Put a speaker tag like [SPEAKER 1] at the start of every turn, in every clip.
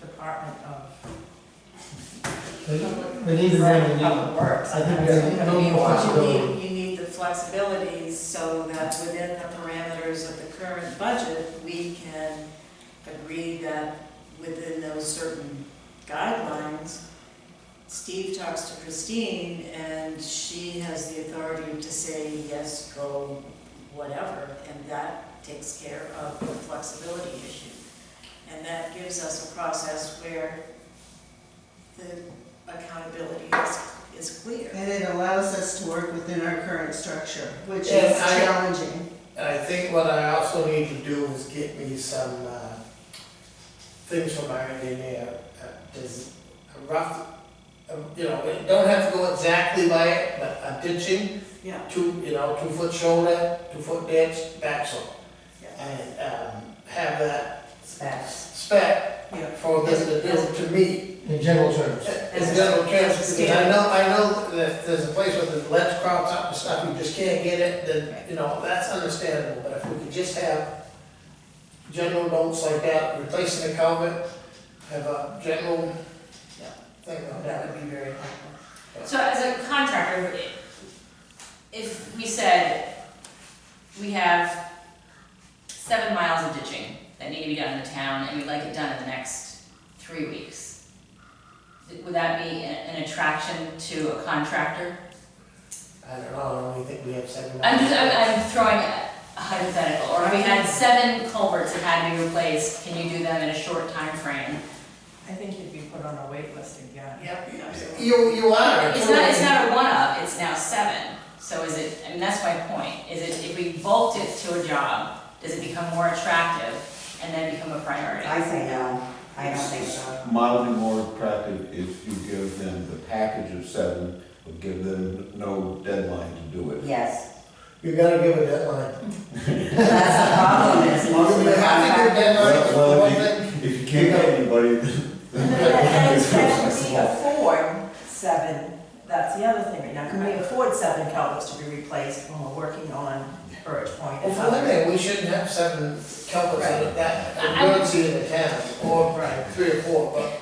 [SPEAKER 1] Department of
[SPEAKER 2] But but even then, we need,
[SPEAKER 3] uh,
[SPEAKER 1] Public Works.
[SPEAKER 2] I think we gotta need a little more
[SPEAKER 1] But you
[SPEAKER 2] flexibility.
[SPEAKER 1] need, you need the flexibility so that within the parameters of the current budget, we can agree that within those certain guidelines, Steve talks to Christine and she has the authority to say, yes, go whatever. And that takes care of the flexibility issue. And that gives us a process where the accountability is, is clear.
[SPEAKER 4] And it allows us to work within our current structure, which is
[SPEAKER 2] And I-
[SPEAKER 4] challenging.
[SPEAKER 2] And I think what I also need to do is get me some, uh, things from our engineer, uh, does, a rough, uh, you know, it don't have to go exactly by it, but a ditching.
[SPEAKER 1] Yeah.
[SPEAKER 2] Two, you know, two foot shoulder, two foot ditch, back slope.
[SPEAKER 1] Yeah.
[SPEAKER 2] And, um, have that
[SPEAKER 1] Specs.
[SPEAKER 2] spec
[SPEAKER 1] Yeah.
[SPEAKER 2] for this, this to meet.
[SPEAKER 3] in general terms.
[SPEAKER 2] In general terms, because I know, I know that there's a place where the ledge crops up and stuff, you just can't get it, then, you know, that's understandable, but if we could just have general notes like that, replacing the culvert, have a general thing on
[SPEAKER 1] That
[SPEAKER 2] that.
[SPEAKER 1] would be very helpful.
[SPEAKER 5] So as a contractor, it- if we said we have seven miles of ditching that need to be done in the town and we'd like it done in the next three weeks, would that be a- an attraction to a contractor?
[SPEAKER 2] I don't know, I don't really think we have seven.
[SPEAKER 5] I'm just, I'm, I'm throwing a hypothetical, or if we had seven culverts that had to be replaced, can you do them in a short time frame?
[SPEAKER 1] I think you'd be put on a wait list again. Yep, absolutely.
[SPEAKER 2] You, you are.
[SPEAKER 5] It's not, it's not a one-up, it's now seven, so is it, I mean, that's my point, is it, if we bulked it to a job, does it become more attractive and then become a priority?
[SPEAKER 6] I say no, I don't think so.
[SPEAKER 7] mildly more attractive if you give them the package of seven, but give them no deadline to do it.
[SPEAKER 6] Yes,
[SPEAKER 2] You gotta give a deadline.
[SPEAKER 6] that's the problem, is most of
[SPEAKER 2] You
[SPEAKER 6] the
[SPEAKER 2] have to give a
[SPEAKER 6] contractors.
[SPEAKER 2] deadline,
[SPEAKER 7] Well, well,
[SPEAKER 2] one thing,
[SPEAKER 7] If you can't get anybody, then.
[SPEAKER 1] Can we afford seven, that's the other thing right now, can we afford seven culverts to be replaced when we're working on Birch Point?
[SPEAKER 2] well, for one thing, we shouldn't have seven culverts in it, that,
[SPEAKER 5] I- I would-
[SPEAKER 2] emergency in the town, or three or four, but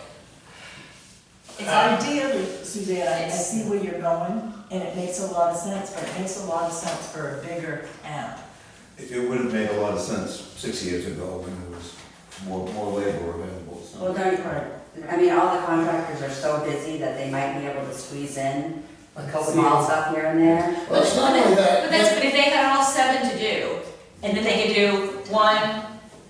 [SPEAKER 2] uh,
[SPEAKER 5] It's-
[SPEAKER 1] Ideally, Suzanne, I- I see where you're going, and it makes a lot of sense, but it makes a lot of sense for a bigger town.
[SPEAKER 7] It would have made a lot of sense six years ago when there was more, more labor available, so.
[SPEAKER 6] Well, don't, I mean, all the contractors are so busy that they might be able to squeeze in
[SPEAKER 2] a couple
[SPEAKER 6] small
[SPEAKER 2] years.
[SPEAKER 6] stuff here and there.
[SPEAKER 2] Well, it's not only that.
[SPEAKER 5] But that's, but if they had all seven to do, and then they could do one,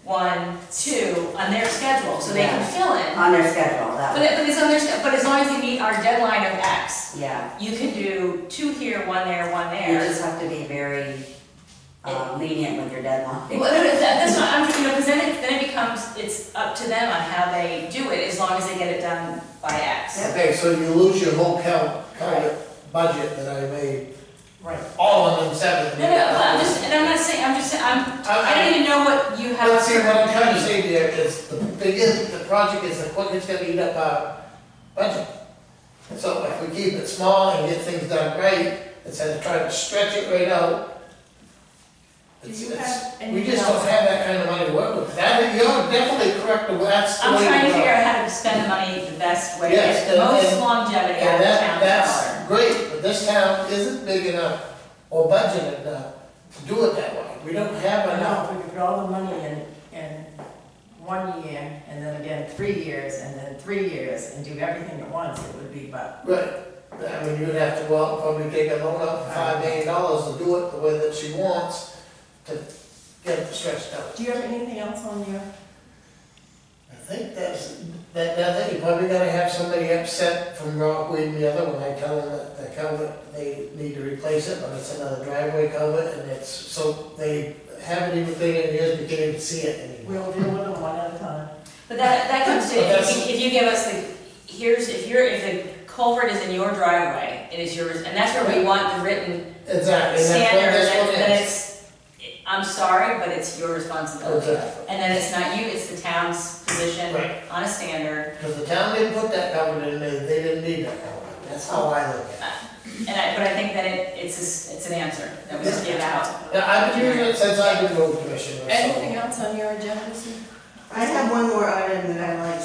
[SPEAKER 5] one, two on their schedule, so they can fill in.
[SPEAKER 6] On their schedule, that
[SPEAKER 5] But,
[SPEAKER 6] would,
[SPEAKER 5] it- but it's on their, sch- but as long as they meet our deadline of X,
[SPEAKER 6] yeah.
[SPEAKER 5] you can do two here, one there, one
[SPEAKER 6] You
[SPEAKER 5] there.
[SPEAKER 6] just have to be very um, lenient with your deadline.
[SPEAKER 5] Well, no, no, that, that's what I'm, you know, because then it, then it becomes, it's up to them on how they do it, as long as they get it done by X.
[SPEAKER 2] Okay, so you lose your whole cal, cal budget that I made,
[SPEAKER 1] Right.
[SPEAKER 2] all of them seven.
[SPEAKER 5] No, no, but I'm just, and I'm not saying, I'm just, saying I'm, I don't even know what you have.
[SPEAKER 2] Let's see, what I'm trying to say there is, the biggest, the project is the quickest gonna eat up our budget. And so if we keep it small and get things done right, instead of trying to stretch it right out.
[SPEAKER 1] Do
[SPEAKER 2] it's-
[SPEAKER 1] you
[SPEAKER 2] it's-
[SPEAKER 1] have
[SPEAKER 2] We
[SPEAKER 1] anything
[SPEAKER 2] just don't
[SPEAKER 1] else?
[SPEAKER 2] have that kind of money to work with, that, you're definitely correct, that's the
[SPEAKER 5] I'm
[SPEAKER 2] way
[SPEAKER 5] trying to
[SPEAKER 2] go.
[SPEAKER 5] figure out how to spend the money the best way,
[SPEAKER 2] Yes,
[SPEAKER 5] get the
[SPEAKER 2] and-
[SPEAKER 5] most
[SPEAKER 2] and-
[SPEAKER 5] longevity out
[SPEAKER 2] And
[SPEAKER 5] of the
[SPEAKER 2] that,
[SPEAKER 5] town
[SPEAKER 2] that's
[SPEAKER 5] dollar.
[SPEAKER 2] great, but this town isn't big enough or budgeted enough to do it that way. We don't have
[SPEAKER 1] I
[SPEAKER 2] enough.
[SPEAKER 1] know, if we could put all the money in, in one year, and then again, three years, and then three years, and do everything at once, it would be, but
[SPEAKER 2] Right. I mean, you'd have to go out and probably take a loan out for five million dollars to do it the way that she wants to get it stretched out.
[SPEAKER 1] do you have anything else on your?
[SPEAKER 2] I think that's, that, that, thing, you probably gotta have somebody upset from Rockweed and the other when I tell them that the culvert, they need to replace it, but it's another driveway culvert and it's, so they haven't even taken it years, but can't even see it anymore.
[SPEAKER 1] We'll deal with them one at a time.
[SPEAKER 5] But that, that comes to,
[SPEAKER 2] But
[SPEAKER 5] if
[SPEAKER 2] that's-
[SPEAKER 5] you, if you give us the, here's, if you're, if the culvert is in your driveway, it is yours, and that's where we want the written
[SPEAKER 2] Exactly, and that's what,
[SPEAKER 5] standard,
[SPEAKER 2] that's
[SPEAKER 5] that
[SPEAKER 2] what it is.
[SPEAKER 5] that it's, I'm sorry, but it's your responsibility.
[SPEAKER 2] Exactly.
[SPEAKER 5] And then it's not you, it's the town's position
[SPEAKER 2] Right.
[SPEAKER 5] on a standard.
[SPEAKER 2] Because the town didn't put that culvert in, they, they didn't need that culvert, that's how I look at
[SPEAKER 5] And I, but I think that it, it's, a s- it's an answer that we just give out.
[SPEAKER 2] it. Now, I've been doing it since I've been road commissioner, so.
[SPEAKER 1] Anything else on your agenda, Sue?
[SPEAKER 4] I have one more item that I like